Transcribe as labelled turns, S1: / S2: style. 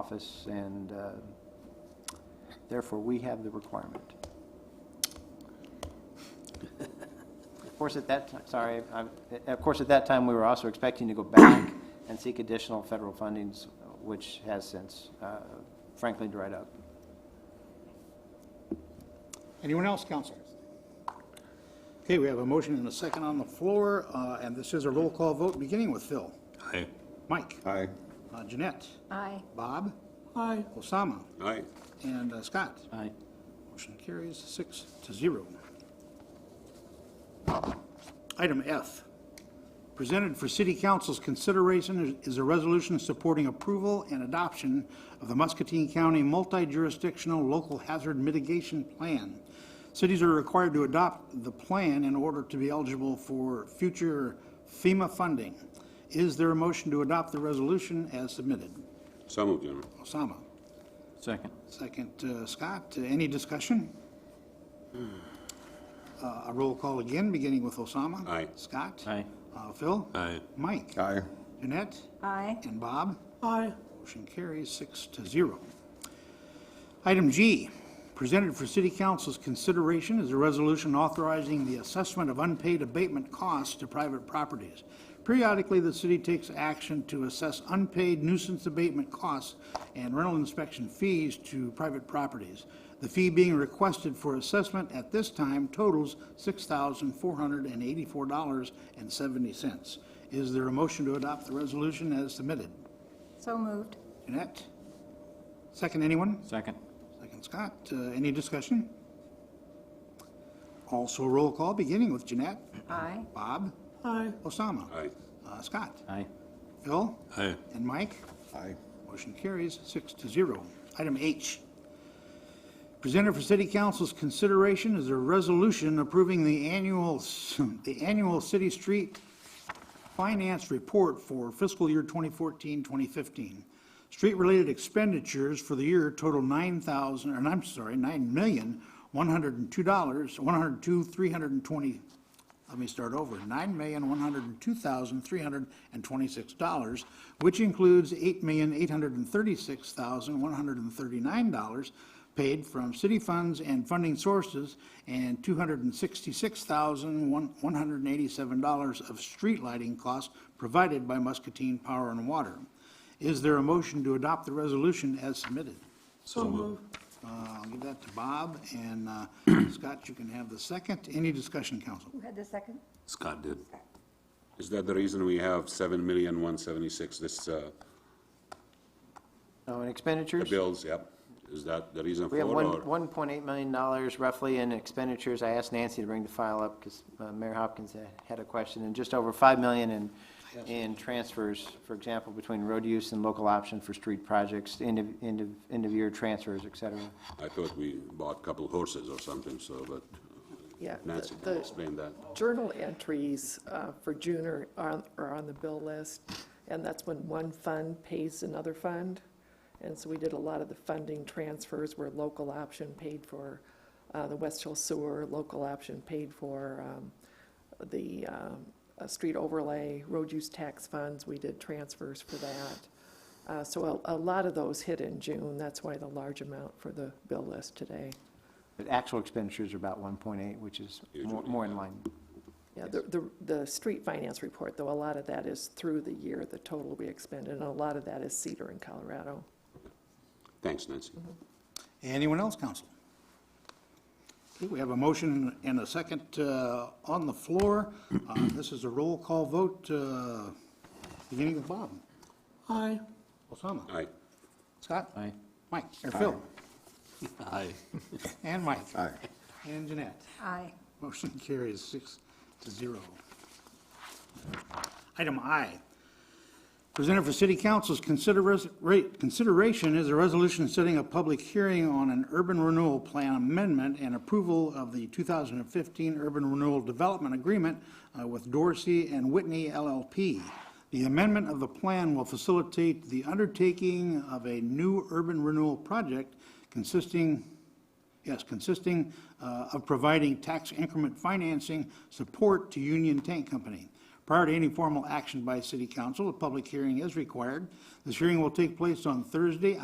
S1: office, and uh, therefore, we have the requirement. Of course, at that, ti- sorry, I'm- of course, at that time, we were also expecting to go back and seek additional federal fundings, which has since uh, frankly dried up.
S2: Anyone else, council? Okay, we have a motion and a second on the floor, uh, and this is a roll call vote, beginning with Phil.
S3: Aye.
S2: Mike?
S4: Aye.
S2: Uh, Jeanette?
S5: Aye.
S2: Bob? Aye. Osama?
S3: Aye.
S2: And uh, Scott?
S1: Aye.
S2: Motion carries six to zero. Item F, presented for city council's consideration is is a resolution supporting approval and adoption of the Muscatine County Multi-Jurisdictional Local Hazard Mitigation Plan. Cities are required to adopt the plan in order to be eligible for future FEMA funding. Is there a motion to adopt the resolution as submitted?
S3: So moved, Your Honor.
S2: Osama?
S1: Second.
S2: Second, uh, Scott, Uh, any discussion? Uh, A roll call again, beginning with Osama.
S3: Aye.
S2: Scott.
S1: Aye.
S2: Uh, Phil.
S3: Aye.
S2: Mike.
S4: Aye.
S2: Jeanette.
S5: Aye.
S2: And Bob? Aye. Motion carries six to zero. Item G, presented for city council's consideration is a resolution authorizing the assessment of unpaid abatement costs to private properties. Periodically, the city takes action to assess unpaid nuisance abatement costs and rental inspection fees to private properties. The fee being requested for assessment at this time totals $6,484.70. Is there a motion to adopt the resolution as submitted?
S5: So moved.
S2: Jeanette? Second, anyone?
S1: Second.
S2: Second, Scott. Uh, Any discussion? Also roll call, beginning with Jeanette.
S5: Aye.
S2: Bob? Aye. Osama?
S3: Aye.
S2: Uh, Scott?
S1: Aye.
S2: Phil?
S3: Aye.
S2: And Mike?
S4: Aye.
S2: Motion carries six to zero. Item H, presented for city council's consideration is a resolution approving the annual, the annual city street finance report for fiscal year 2014, 2015. Street-related expenditures for the year total 9,000, and I'm sorry, $9,102, 102, 320, let me start over, nine million, one hundred and two thousand, three hundred and twenty-six dollars, which includes eight million, eight hundred and thirty-six thousand, one hundred and thirty-nine dollars paid from city funds and funding sources, and two hundred and sixty-six thousand, one, one hundred and eighty-seven dollars of street lighting costs provided by Muscatine Power and Water. Is there a motion to adopt the resolution as submitted?
S3: So moved.
S2: Uh, I'll give that to Bob, and, uh, Scott, you can have the second. Any discussion, council?
S5: Who had the second?
S3: Scott did. Is that the reason we have seven million, one seventy-six, this, uh,
S1: Oh, and
S3: the
S1: expenditures?
S3: bills, yep? Is that the reason for
S1: We
S3: it,
S1: have
S3: or?
S1: one, $1.8 million roughly in expenditures. I asked Nancy to bring the file up because Mayor Hopkins had- had a question, and just over 5 million in, in transfers, for example, between road use and local option for street projects, end of, end of, end of year transfers, et cetera.
S3: I thought we bought a couple horses or something, so, but
S6: Yeah,
S3: Nancy
S6: the-
S3: can
S6: the-
S3: explain that.
S6: Journal entries uh, for June are, are are on the bill list, and that's when one fund pays another fund. And so we did a lot of the funding transfers where local option paid for uh, the West Hill Sewer, local option paid for um, the um, uh, street overlay, road use tax funds, we did transfers for that. Uh, So a a lot of those hit in June, that's why the large amount for the bill list today.
S1: But actual expenditures are about 1.8, which is more,
S3: Usually,
S1: more in line.
S6: Yeah, the, the, the street finance report, though, a lot of that is through the year, the total we expended, and a lot of that is Cedar in Colorado.
S3: Thanks, Nancy.
S2: Anyone else, council? Okay, we have a motion and a second uh, on the floor. Uh, This is a roll call vote, uh, beginning with Bob. Aye. Osama.
S3: Aye.
S2: Scott.
S1: Aye.
S2: Mike, or Phil.
S3: Aye.
S2: And Mike.
S4: Aye.
S2: And Jeanette.
S5: Aye.
S2: Motion carries six to zero. Item I, presented for city council's consideras- rate- consideration is a resolution setting a public hearing on an urban renewal plan amendment and approval of the 2015 Urban Renewal Development Agreement uh, with Dorsey and Whitney LLP. The amendment of the plan will facilitate the undertaking of a new urban renewal project consisting Yes, consisting uh, of providing tax increment financing support to Union Tank Company. Prior to any formal action by city council, a public hearing is required. This hearing will take place on Thursday,